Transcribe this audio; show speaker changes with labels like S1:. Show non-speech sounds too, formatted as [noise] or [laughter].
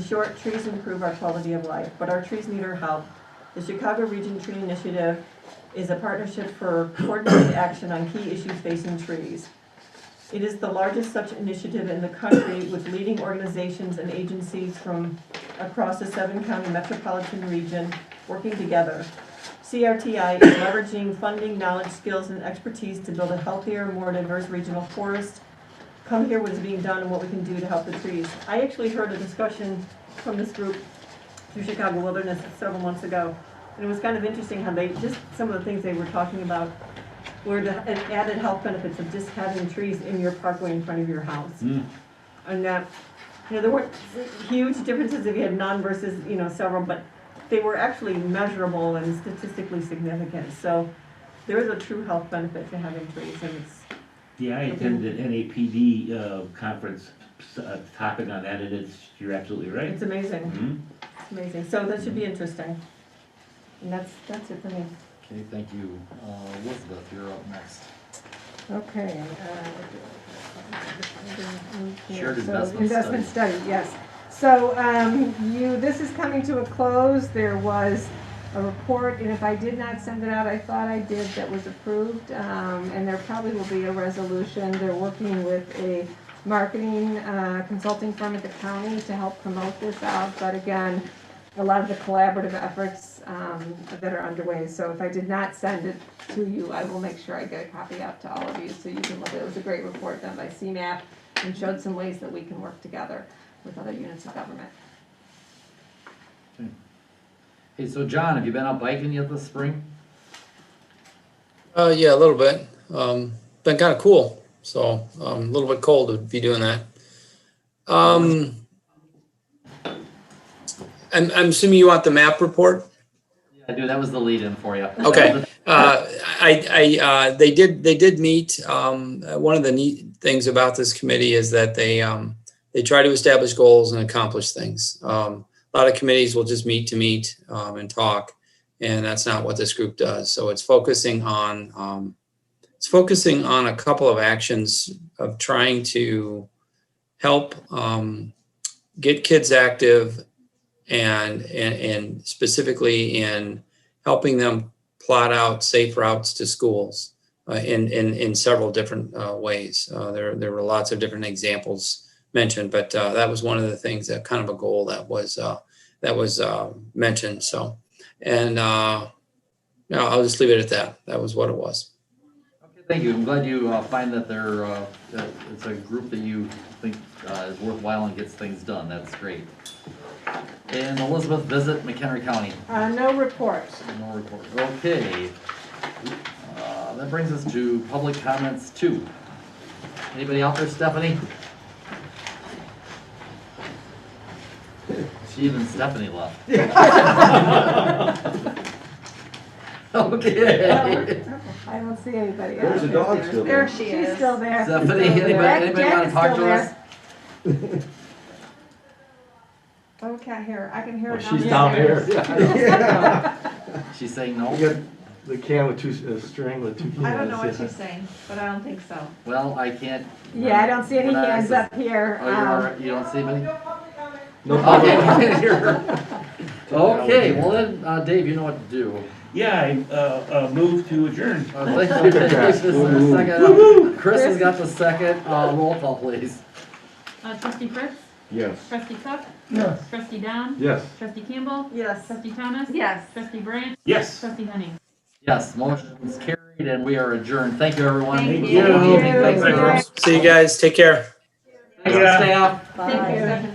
S1: short, trees improve our quality of life, but our trees need our help. The Chicago Region Tree Initiative is a partnership for coordinated action on key issues facing trees. It is the largest such initiative in the country with leading organizations and agencies from across the seven county metropolitan region working together. CRTI is leveraging funding, knowledge, skills, and expertise to build a healthier, more diverse regional forest. Come hear what is being done and what we can do to help the trees. I actually heard a discussion from this group through Chicago Wilderness several months ago. And it was kind of interesting how they, just some of the things they were talking about were the added health benefits of just having trees in your parkway in front of your house.
S2: Mm.
S1: And that, you know, there weren't huge differences if you had none versus, you know, several, but they were actually measurable and statistically significant. So there is a true health benefit to having trees and it's,
S2: Yeah, I attended an NAPD uh, conference, s- uh, topic on that, and it's, you're absolutely right.
S1: it's amazing,
S2: Mhm.
S1: it's amazing. So that should be interesting. And that's, that's it for me.
S3: Okay, thank you. Uh, Elizabeth, you're up next.
S4: Okay. uh,
S3: Shared
S4: so,
S3: investment
S4: Investment study, yes. So um, you, this is coming to a close. There was a report, and if I did not send it out, I thought I did, that was approved. um, And there probably will be a resolution. They're working with a marketing uh, consulting firm at the county to help promote this out. But again, a lot of the collaborative efforts um, that are underway. So if I did not send it to you, I will make sure I get a copy out to all of you so you can look. It was a great report done by CMAP and showed some ways that we can work together with other units of government.
S3: Hey, so John, have you been out biking yet this spring?
S5: Uh, yeah, a little bit. Um, been kind of cool. So um, a little bit cold to be doing that. Um, I'm, I'm assuming you want the map report.
S3: Yeah, I do. That was the lead-in for [laughs] you.
S5: Okay. Uh, I, I, uh, they did, they did meet. Um, uh, one of the neat things about this committee is that they, um, they try to establish goals and accomplish things. Um, a lot of committees will just meet to meet, um, and talk. And that's not what this group does. So it's focusing on, um, it's focusing on a couple of actions of trying to help, um, get kids active and, and, and specifically in helping them plot out safe routes to schools uh, in, in, in several different uh, ways. Uh, there, there were lots of different examples mentioned, but uh, that was one of the things that kind of a goal that was uh, that was uh, mentioned. So, and uh, no, I'll just leave it at that. That was what it was.
S3: Okay, Thank you. I'm glad you uh, find that they're, uh, that it's a group that you think uh, is worthwhile and gets things done. That's great. And Elizabeth, visit McHenry County.
S4: Uh, No report.
S3: No report. Okay. Uh, That brings us to public comments two. Anybody out there, Stephanie? She even Stephanie left. [laughs]
S4: [laughs]
S3: Okay.
S4: I don't see anybody.
S6: There's a dog still
S4: There
S6: there.
S4: she is. She's still there.
S3: Stephanie, anybody,
S4: Jack-
S3: anybody
S4: Jack
S3: want to
S4: is
S3: talk
S4: still
S3: to us?
S4: there. Oh, we can't hear her. I can hear her.
S6: Well, she's down there.
S7: [laughs]
S6: Yeah.
S3: She's saying no?
S6: [laughs] You got the can with two, a string with two.
S7: I don't know what
S6: cans, yeah.
S7: she's saying, but I don't think so.
S3: Well, I can't.
S4: Yeah, I don't see any
S3: When I
S4: hands
S3: access-
S4: up here.
S3: Oh, you
S4: Um,
S3: are, you don't see anybody?
S6: No
S3: Okay, [laughs]
S6: problem.
S3: Okay, well then, uh, Dave, you know what to do.
S2: Yeah, I uh, uh, moved to adjourn.
S3: Uh, thank you, Dave. This is the second. Chris has got the second, uh, roll call please.
S8: Uh, trustee Fritz,
S6: Yes.
S8: trustee Cook,
S6: Yes.
S8: trustee Don,
S6: Yes.
S8: trustee Campbell,
S1: Yes.
S8: trustee Thomas,
S7: Yes.
S8: trustee Branch,
S2: Yes.
S8: trustee Henning.
S3: Yes, motion is carried and we are adjourned. Thank you, everyone.
S7: Thank
S3: Good
S2: you.
S3: evening. Thanks,
S4: Thank you.
S3: everyone.
S5: See you guys. Take care.
S3: Thanks, staff.
S1: Bye.
S7: Thank you, Stephanie.